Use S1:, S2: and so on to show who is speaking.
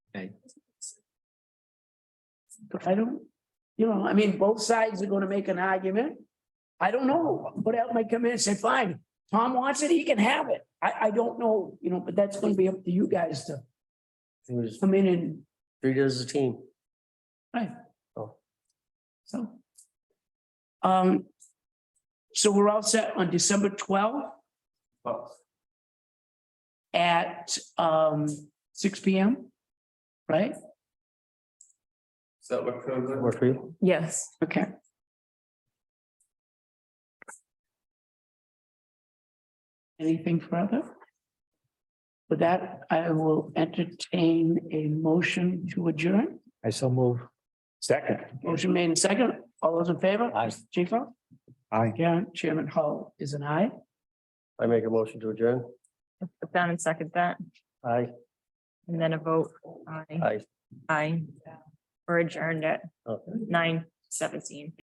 S1: Okay.
S2: I don't, you know, I mean, both sides are gonna make an argument. I don't know, but that might come in and say, fine, Tom wants it, he can have it. I, I don't know, you know, but that's gonna be up to you guys to
S1: It was
S2: come in and,
S1: three does a team.
S2: so. Um, so we're all set on December twelfth at, um, six P M, right?
S3: So we're proven.
S1: Work for you?
S4: Yes.
S2: Okay. Anything further? With that, I will entertain a motion to adjourn.
S1: I so move. Second.
S2: Motion made in second. All those in favor?
S1: Aye.
S2: Chico?
S1: Aye.
S2: Karen, Chairman Hull is an aye.
S1: I make a motion to adjourn.
S4: Put down and second that,
S1: Aye.
S4: and then a vote. Aye.
S1: Aye.
S4: Aye. Or adjourned at
S1: Okay.
S4: nine seventeen.